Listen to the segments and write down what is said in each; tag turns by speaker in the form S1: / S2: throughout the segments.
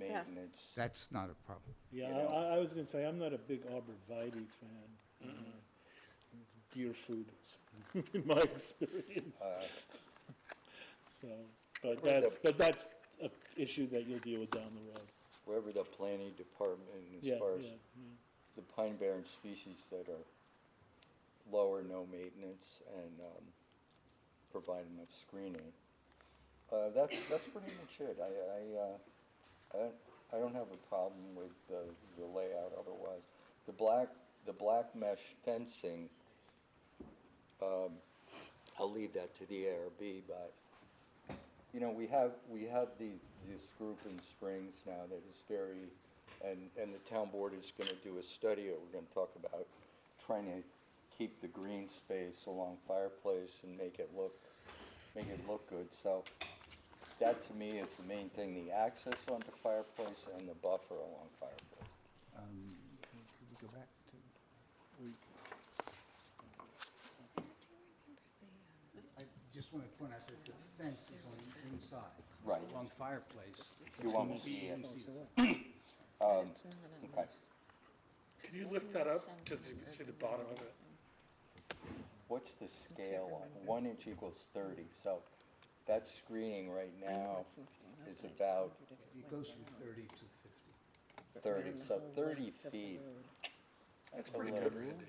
S1: Yeah.
S2: maintenance.
S3: That's not a problem.
S4: Yeah,
S2: you
S4: I-
S2: know.
S4: I, I was gonna say, I'm not a big arborvitae fan. Uh, It's deer food, in my experience,
S2: Uh,
S4: so, but
S2: Where the-
S4: that's, but that's a issue that you'll deal with down the road.
S2: Wherever the planning department, as
S4: Yeah,
S2: far as
S4: yeah, yeah.
S2: the pine barren species that are low or no maintenance and um, provide enough screening. Uh, That's, that's pretty much it. I, I, uh, I don't- I don't have a problem with the the layout otherwise. The black, the black mesh fencing, um, I'll leave that to the ARB, but, you know, we have, we have the, this group in Springs now that is very, and, and the town board is gonna do a study, that we're gonna talk about trying to keep the green space along fireplace and make it look, make it look good, so that to me is the main thing, the access onto fireplace and the buffer along fireplace.
S3: Um, Could we go back to, I just want to point out that the fence is on inside.
S2: Right.
S3: Along fireplace.
S2: You won't see it.
S3: You see the-
S2: Um, okay.
S5: Can you lift that up to see see the bottom of it?
S2: What's the scale on, one inch equals thirty, so that screening right now is about
S3: It goes from 30 to 50.
S2: thirty, so thirty feet,
S5: That's
S2: Hello.
S5: pretty good, Randy.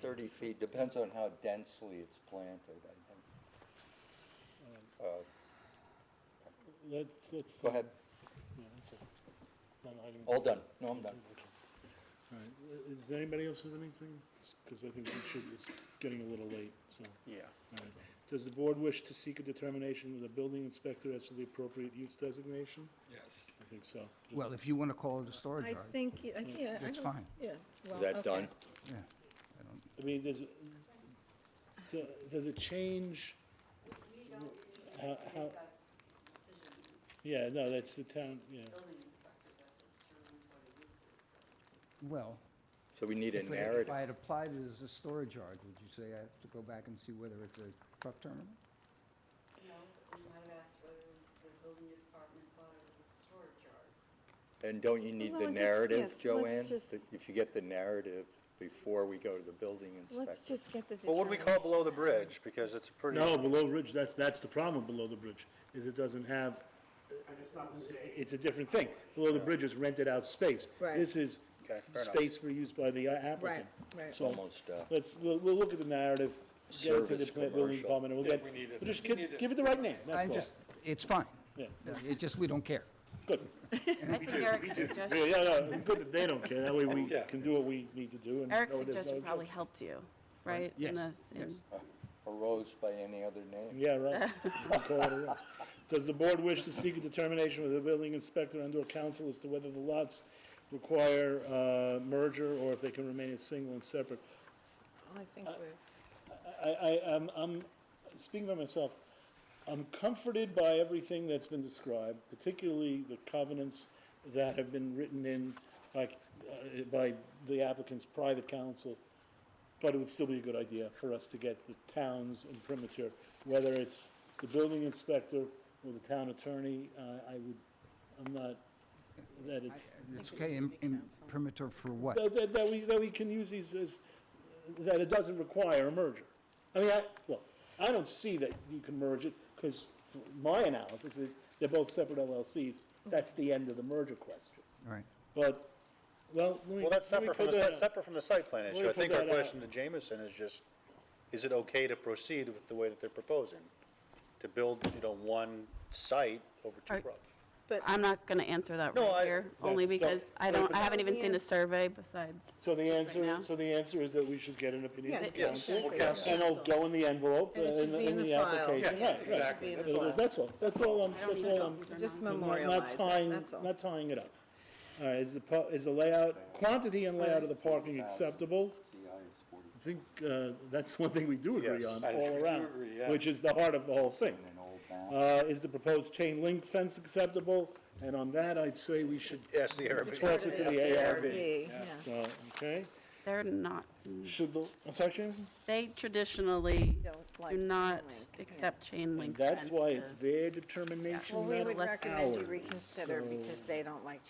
S2: thirty feet, depends on how densely it's planted, I
S5: Um,
S2: think. Uh,
S4: Let's, let's.
S2: Go
S4: uh,
S2: ahead,
S4: yeah, that's it. No, no, I didn't-
S2: all done, no, I'm done.
S4: All right, Uh, does anybody else have anything? Because I think we should, it's getting a little late, so.
S5: Yeah.
S4: all right. Does the board wish to seek a determination with the building inspector as to the appropriate use designation?
S5: Yes.
S4: I think so.
S3: Well, if you want to call it a storage
S1: I
S3: yard,
S1: think, y- I can't. I
S3: That's
S1: don't-
S3: fine.
S1: Yeah. well,
S2: that
S1: okay.
S2: done?
S3: yeah. I don't-
S4: I mean, does, it- do- does it change? How, how? Yeah, no, that's the town, yeah.
S3: Well,
S2: So we need a
S3: if I- if
S2: narrative,
S3: I had applied it as a storage yard, would you say I have to go back and see whether it's a truck terminal?
S6: No, we might ask whether the building department thought it was a storage yard.
S2: and don't you need
S1: Well,
S2: the
S1: just-
S2: narrative,
S1: yes, let's
S2: Joanne?
S1: just-
S2: That If you get the narrative before we go to the building
S1: Let's
S2: inspector.
S1: just get the.
S5: Well, what do we call below the bridge? Because it's a pretty.
S4: No, below ridge, that's, that's the problem with below the bridge, is it doesn't have. it's a different thing. Below the bridge is rented out space.
S1: Right.
S4: This is
S5: Okay, fair enough.
S4: space for use by the applicant.
S1: Right, right.
S4: So,
S2: Almost, uh,
S4: let's, we'll, we'll look at the narrative, get it to the
S2: Service
S4: plant
S2: commercial.
S4: building department, and we'll
S5: Yeah,
S4: get,
S5: we need it.
S4: we'll just
S5: We
S4: give,
S5: need it.
S4: give it the right name, that's
S3: I'm
S4: all.
S3: just, it's fine.
S4: Yeah.
S3: It just, we don't care.
S7: I think Eric's
S4: Yeah,
S7: suggestion,
S4: yeah, no, it's good that they don't care, that way we
S5: Yeah.
S4: can do what we need to do and.
S7: Eric's
S4: know there's no
S7: suggestion probably
S4: objection.
S7: helped you, right? in
S3: Yes,
S7: this- in-
S2: arose by any other name.
S4: Yeah, right. You can call it a rough. Does the board wish to seek a determination with the building inspector and/or council as to whether the lots require uh, merger or if they can remain as single and separate?
S1: I
S2: Uh,
S1: think we're,
S4: I, I, I'm, I'm, speaking by myself, I'm comforted by everything that's been described, particularly the covenants that have been written in, like, uh, by the applicant's private counsel. But it would still be a good idea for us to get the towns imprimatur, whether it's the building inspector or the town attorney, uh, I would, I'm not, that it's.
S3: It's okay, in, in perimeter for what?
S4: That, that, that we, that we can use these as, that it doesn't require a merger. I mean, I, look, I don't see that you can merge it, because my analysis is they're both separate LLCs. That's the end of the merger question.
S3: All right.
S4: But, well, let me,
S8: Well, that's
S4: let me
S8: separate from,
S4: put
S8: the-
S4: that
S8: that's
S4: out.
S8: separate from the site plan
S4: me
S8: issue. I
S4: put
S8: think our
S4: that out.
S8: question to Jameson is just, is it okay to proceed with the way that they're proposing? To build, you know, one site over two
S7: Are-
S8: properties?
S7: I'm not going to answer that
S8: No,
S7: right
S8: I-
S7: here, only
S4: that's- so-
S7: because I don't, I haven't even seen
S1: Yeah.
S7: the survey besides.
S4: So the answer,
S7: now.
S4: so the answer is that we should get an opinion
S1: yes.
S4: from
S1: it
S4: council.
S1: should be.
S4: And it'll go in the envelope, uh,
S1: And it should
S4: in
S1: be
S4: the, in the
S1: file.
S4: application,
S1: Yes,
S4: right,
S1: it should
S4: right.
S1: be in the
S4: It'll-
S1: file.
S4: That's all, that's all I'm,
S7: I don't
S4: that's
S7: need to
S4: all
S7: tell
S4: I'm.
S7: these are
S1: Just
S7: not-
S4: Not-
S1: memorialize it,
S4: Not tying,
S1: that's all.
S4: not tying it up. All right, is the, pa- is the layout, quantity and layout of the parking acceptable?
S2: CI is forty
S4: I think uh, that's one thing we do agree
S8: Yes.
S4: on
S5: I think
S4: all
S5: we do
S4: around,
S5: agree, yeah.
S4: which is the heart of the whole thing.
S2: and an old map.
S4: Uh, Is the proposed chain link fence acceptable? And on that, I'd say we should
S8: Yes, the Arab.
S4: toss it to the ARB.
S1: yeah.
S4: So, okay.
S7: They're not,
S4: Should the, I'm sorry, Jameson?
S7: they traditionally
S1: Don't like
S7: do not
S1: chain link, yeah.
S7: accept chain
S4: And
S7: link
S4: that's why it's
S7: fences.
S4: their determination,
S1: Well,
S4: not
S1: we would
S7: Let's-
S1: recommend you
S4: ours,
S1: reconsider
S4: so-
S1: because they don't like